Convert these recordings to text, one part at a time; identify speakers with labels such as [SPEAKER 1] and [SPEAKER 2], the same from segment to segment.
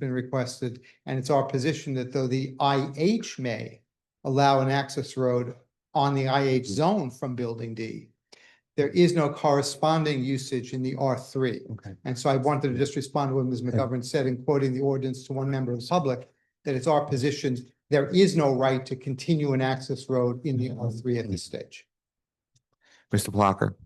[SPEAKER 1] been requested, and it's our position that though the IH may allow an access road on the IH zone from Building D, there is no corresponding usage in the R three.
[SPEAKER 2] Okay.
[SPEAKER 1] And so I wanted to just respond to what Ms. McGovern said in quoting the ordinance to one member of the public, that it's our position, there is no right to continue an access road in the R three at this stage.
[SPEAKER 2] Mr. Plucker.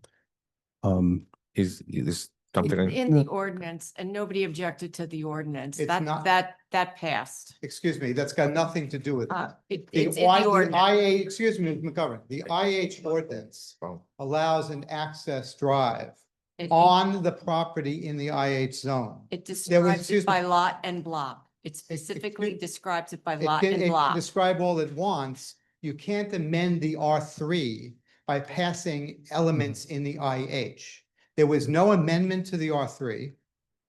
[SPEAKER 2] Um, is, is something,
[SPEAKER 3] It's
[SPEAKER 2] I-
[SPEAKER 3] In the ordinance, and nobody objected to the ordinance.
[SPEAKER 1] It's
[SPEAKER 3] That,
[SPEAKER 1] not-
[SPEAKER 3] that, that passed.
[SPEAKER 1] Excuse me, that's got nothing to do with it.
[SPEAKER 3] Uh, it-
[SPEAKER 1] The
[SPEAKER 3] It's in
[SPEAKER 1] I-
[SPEAKER 3] the
[SPEAKER 1] the
[SPEAKER 3] ordinance.
[SPEAKER 1] IA, excuse me, Ms. McGovern, the IH ordinance
[SPEAKER 2] Oh,
[SPEAKER 1] allows an access drive
[SPEAKER 3] It-
[SPEAKER 1] on the property in the IH zone.
[SPEAKER 3] It
[SPEAKER 1] excuse
[SPEAKER 3] describes
[SPEAKER 1] me.
[SPEAKER 3] it by lot and block. It specifically
[SPEAKER 1] excuse-
[SPEAKER 3] describes it by
[SPEAKER 1] It
[SPEAKER 3] lot
[SPEAKER 1] can- it
[SPEAKER 3] and
[SPEAKER 1] can
[SPEAKER 3] block.
[SPEAKER 1] Describe all it wants. You can't amend the R three by passing elements in the IH. There was no amendment to the R three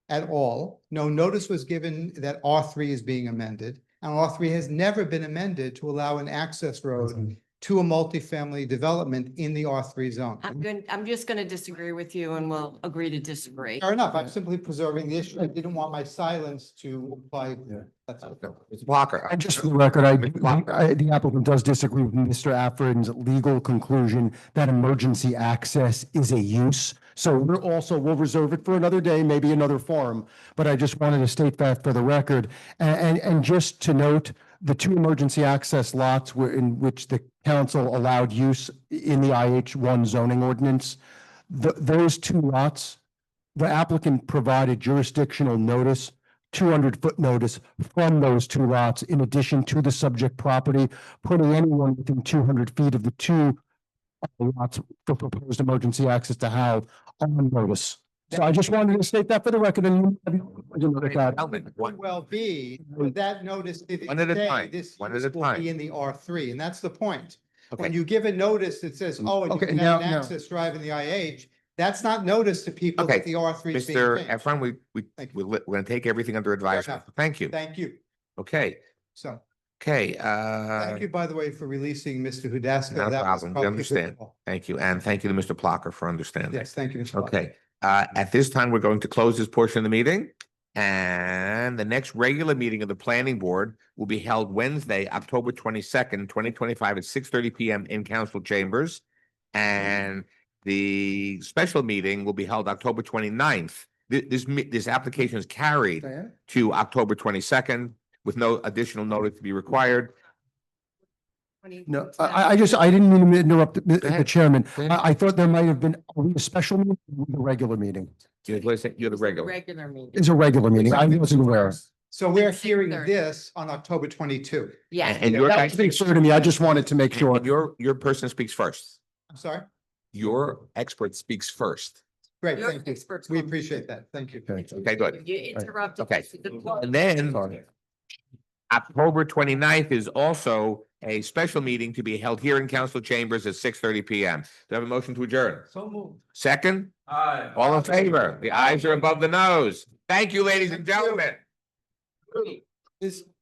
[SPEAKER 1] at all. No notice was given that R three is being amended. And R three has never been amended to allow an access road to a multifamily development in the R three zone.
[SPEAKER 3] I'm going, I'm just going to disagree with you and we'll agree to disagree.
[SPEAKER 1] Fair enough. I'm simply preserving the issue. I didn't want my silence to imply.
[SPEAKER 2] Yeah.
[SPEAKER 1] That's all.
[SPEAKER 2] Mr. Plucker. I-
[SPEAKER 4] And just for the record, I, I- the applicant does disagree with Mr. Afford's legal conclusion that emergency access is a use. So we're also, we'll reserve it for another day, maybe another forum, but I just wanted to state that for the record. And, and, and just to note, the two emergency access lots were in which the council allowed use in the IH one zoning ordinance. Th those two lots, the applicant provided jurisdictional notice two hundred foot notice from those two lots in addition to the subject property, putting anyone within two hundred feet of the two lots for proposed emergency access to have on notice. So I just wanted to state that for the record and you know that.
[SPEAKER 2] Element,
[SPEAKER 1] could
[SPEAKER 2] one-
[SPEAKER 1] well be, but that notice didn't
[SPEAKER 2] One at a
[SPEAKER 1] say
[SPEAKER 2] time,
[SPEAKER 1] this
[SPEAKER 2] one at
[SPEAKER 1] use
[SPEAKER 2] a
[SPEAKER 1] will
[SPEAKER 2] time.
[SPEAKER 1] be in the R three, and that's the point. When
[SPEAKER 2] Okay,
[SPEAKER 1] you give a notice that says, oh, and you
[SPEAKER 4] Okay,
[SPEAKER 1] can have
[SPEAKER 4] now-
[SPEAKER 1] an
[SPEAKER 4] now-
[SPEAKER 1] access drive in the IH, that's not notice to people
[SPEAKER 2] Okay,
[SPEAKER 1] that the R three is being
[SPEAKER 2] Mr.
[SPEAKER 1] changed.
[SPEAKER 2] Efron, we, we,
[SPEAKER 1] Thank you.
[SPEAKER 2] we're li- we're gonna take everything under advisement.
[SPEAKER 1] enough.
[SPEAKER 2] Thank you.
[SPEAKER 1] Thank you.
[SPEAKER 2] Okay,
[SPEAKER 1] So,
[SPEAKER 2] okay,
[SPEAKER 1] thank
[SPEAKER 2] uh,
[SPEAKER 1] you, by the way, for releasing Mr. Hudaska.
[SPEAKER 2] Not
[SPEAKER 1] That
[SPEAKER 2] a
[SPEAKER 1] was
[SPEAKER 2] problem. We
[SPEAKER 1] probably
[SPEAKER 2] understand.
[SPEAKER 1] difficult.
[SPEAKER 2] thank you, and thank you to Mr. Plucker for understanding.
[SPEAKER 1] Yes, thank you. Mr. Clark.
[SPEAKER 2] Okay, uh, at this time, we're going to close this portion of the meeting. And the next regular meeting of the planning board will be held Wednesday, October twenty-second, twenty twenty-five at six thirty PM in council chambers. And the special meeting will be held October 29th. Th- This, mi- this application is carried to October twenty-second with no additional notice to be required.
[SPEAKER 4] No, I, I just, I didn't mean to interrupt the- the
[SPEAKER 2] ahead.
[SPEAKER 4] chairman.
[SPEAKER 2] Go ahead.
[SPEAKER 4] I, I thought there might have been are we a special meeting, or the regular meeting.
[SPEAKER 2] You're the- you're the regular.
[SPEAKER 3] Regular meeting.
[SPEAKER 4] It's a regular meeting. I wasn't aware.
[SPEAKER 1] So we're
[SPEAKER 3] At
[SPEAKER 1] hearing
[SPEAKER 3] 6:30.
[SPEAKER 1] this on October twenty-two.
[SPEAKER 2] And
[SPEAKER 3] Yes,
[SPEAKER 2] and your, guy-
[SPEAKER 4] That was clear to me. I just wanted to make sure.
[SPEAKER 2] and your, your person speaks first.
[SPEAKER 1] I'm sorry.
[SPEAKER 2] Your expert speaks first.
[SPEAKER 1] Great,
[SPEAKER 3] your
[SPEAKER 1] thank you.
[SPEAKER 3] experts.
[SPEAKER 1] We
[SPEAKER 3] come.
[SPEAKER 1] appreciate that. Thank you.
[SPEAKER 4] Okay.
[SPEAKER 2] Okay, good.
[SPEAKER 3] You interrupted.
[SPEAKER 2] Okay.
[SPEAKER 3] the flow.
[SPEAKER 2] And then
[SPEAKER 4] Sorry.
[SPEAKER 2] October 29th is also a special meeting to be held here in council chambers at six thirty P M. Do I have a motion to adjourn?
[SPEAKER 1] So moved.
[SPEAKER 2] Second? Aye. All in favor? The eyes are above the nose. Thank you, ladies and
[SPEAKER 1] Thank you.
[SPEAKER 2] gentlemen.
[SPEAKER 1] Is,